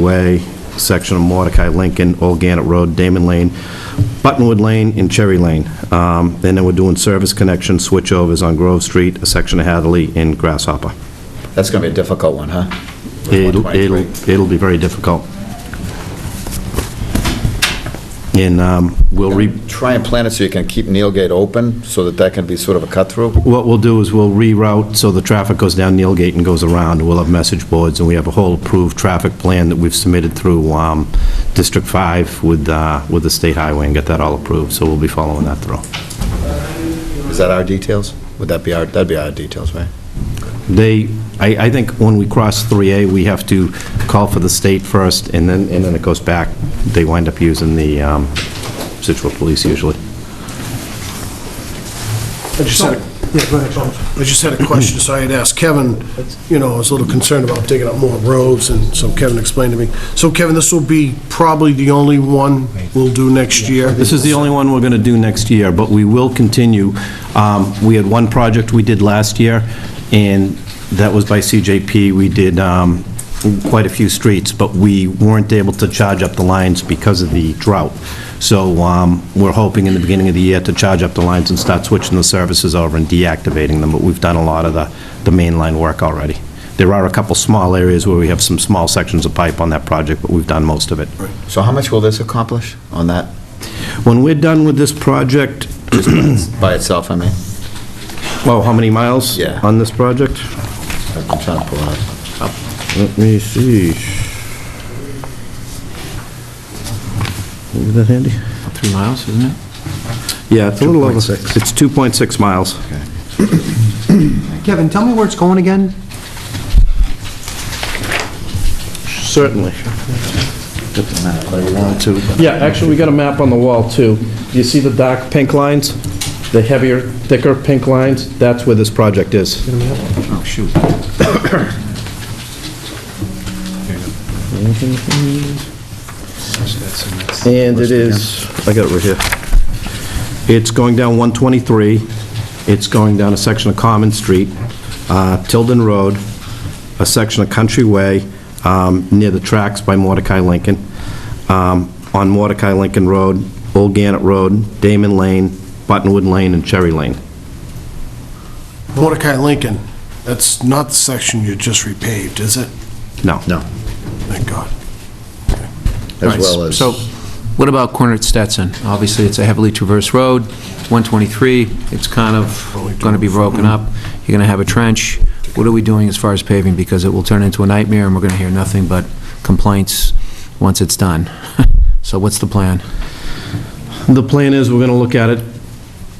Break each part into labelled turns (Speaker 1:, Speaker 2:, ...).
Speaker 1: Way, section of Mordecai Lincoln, Old Gannett Road, Damon Lane, Buttonwood Lane, and Cherry Lane. Um, And then we're doing service connection switchovers on Grove Street, a section of Hadley, and Grasshopper.
Speaker 2: That's going to be a difficult one, huh?
Speaker 1: It'll, it'll, it'll be very difficult. And um, we'll re,
Speaker 2: Try and plan it so you can keep Neil Gate open, so that that can be sort of a cut-through.
Speaker 1: what we'll do is we'll reroute so the traffic goes down Neil Gate and goes around. We'll have message boards, and we have a whole approved traffic plan that we've submitted through um, District 5 with, uh, with the state highway and get that all approved, so we'll be following that through.
Speaker 2: Is that our details? Would that be our, that'd be our details, right?
Speaker 1: They, I, I think when we cross 3A, we have to call for the state first, and then, and then it goes back. They wind up using the um, Situate Police usually.
Speaker 3: I just had, a- yeah, go ahead, Bob. I just had a question, so I had asked Kevin, you know, I was a little concerned about digging up more roads, and so Kevin explained to me. So Kevin, this will be probably the only one we'll do next year?
Speaker 1: This is the only one we're going to do next year, but we will continue. Um, We had one project we did last year, and that was by CJP. We did um, quite a few streets, but we weren't able to charge up the lines because of the drought. So um, we're hoping in the beginning of the year to charge up the lines and start switching the services over and deactivating them, but we've done a lot of the the main line work already. There are a couple small areas where we have some small sections of pipe on that project, but we've done most of it.
Speaker 2: So how much will this accomplish on that,
Speaker 1: When we're done with this project,
Speaker 2: by itself, I mean?
Speaker 1: Oh, how many miles?
Speaker 2: Yeah.
Speaker 1: On this project?
Speaker 2: I'm trying to pull it out.
Speaker 1: Let me see. Is that handy?
Speaker 4: Three miles, isn't it?
Speaker 1: Yeah, it's a little over. It's 2.6 miles.
Speaker 5: Kevin, tell me where it's going again?
Speaker 1: Certainly.
Speaker 6: Yeah, actually, we got a map on the wall, too. You see the dark pink lines? The heavier, thicker pink lines? That's where this project is.
Speaker 4: Oh, shoot.
Speaker 1: And it is, I got it right here. It's going down 123, it's going down a section of Common Street, uh, Tilden Road, a section of Country Way, um, near the tracks by Mordecai Lincoln, um, on Mordecai Lincoln Road, Old Gannett Road, Damon Lane, Buttonwood Lane, and Cherry Lane.
Speaker 3: Mordecai Lincoln, that's not the section you just repaved, is it?
Speaker 1: No. No.
Speaker 3: Thank God.
Speaker 2: As well as,
Speaker 4: So what about corner at Stetson? Obviously, it's a heavily traversed road, 123, it's kind of going to be broken up, you're going to have a trench. What are we doing as far as paving? Because it will turn into a nightmare, and we're going to hear nothing but complaints once it's done. So what's the plan?
Speaker 1: The plan is, we're going to look at it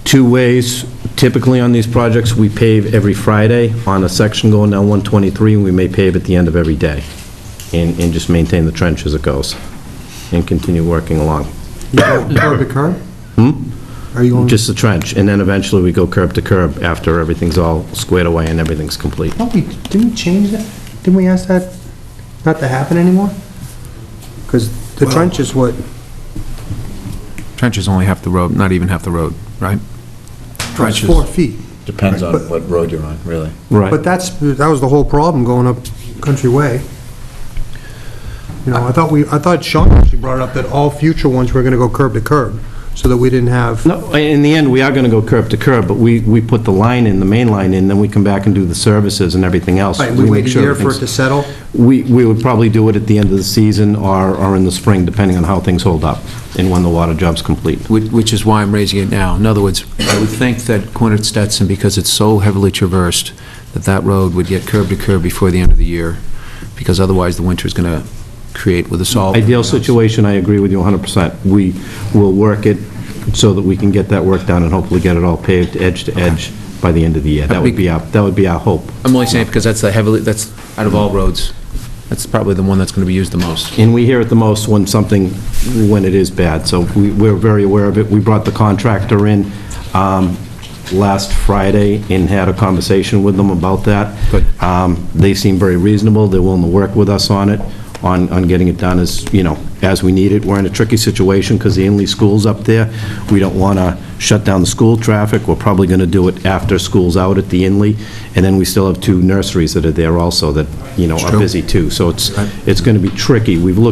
Speaker 1: two ways. Typically, on these projects, we pave every Friday on a section going down 123, and we may pave at the end of every day, and, and just maintain the trench as it goes, and continue working along.
Speaker 5: You going curb to curb? Hmm? Are you going?
Speaker 1: Just the trench, and then eventually we go curb to curb after everything's all squared away and everything's complete.
Speaker 5: Don't we, didn't we change that? Didn't we ask that not to happen anymore? Because the trench is what,
Speaker 4: Trench is only half the road, not even half the road, right?
Speaker 5: it's four feet.
Speaker 2: depends on what road you're on, really.
Speaker 5: But that's, that was the whole problem going up Country Way. You know, I thought we, I thought Sean actually brought up that all future ones were gonna go curb to curb, so that we didn't have,
Speaker 1: No, in the end, we are going to go curb to curb, but we, we put the line in, the main line in, then we come back and do the services and everything else.
Speaker 5: Right, we
Speaker 1: make
Speaker 5: wait a
Speaker 1: sure
Speaker 5: year for it
Speaker 1: everything's-
Speaker 5: to settle?
Speaker 1: We, we would probably do it at the end of the season or, or in the spring, depending on how things hold up and when the water job's complete.
Speaker 4: Which which is why I'm raising it now. In other words, I would think that Quinn at Stetson, because it's so heavily traversed, that that road would get curb to curb before the end of the year, because otherwise the winter's going to create with the salt.
Speaker 1: Ideal situation, I agree with you 100%. We will work it so that we can get that work done and hopefully get it all paved edge to edge by the end of the year. That would be our, that would be our hope.
Speaker 4: I'm only saying because that's the heavily, that's, out of all roads, that's probably the one that's going to be used the most.
Speaker 1: And we hear it the most when something, when it is bad, so we- we're very aware of it. We brought the contractor in um, last Friday and had a conversation with them about that.
Speaker 4: Good.
Speaker 1: Um, They seem very reasonable, they're willing to work with us on it. on, on getting it done as, you know, as we need it. We're in a tricky situation because the Inlee School's up there. We don't want to shut down the school traffic. We're probably going to do it after school's out at the Inlee. And then we still have two nurseries that are there also that, you know, are busy too. So it's, it's going to be tricky. We've looked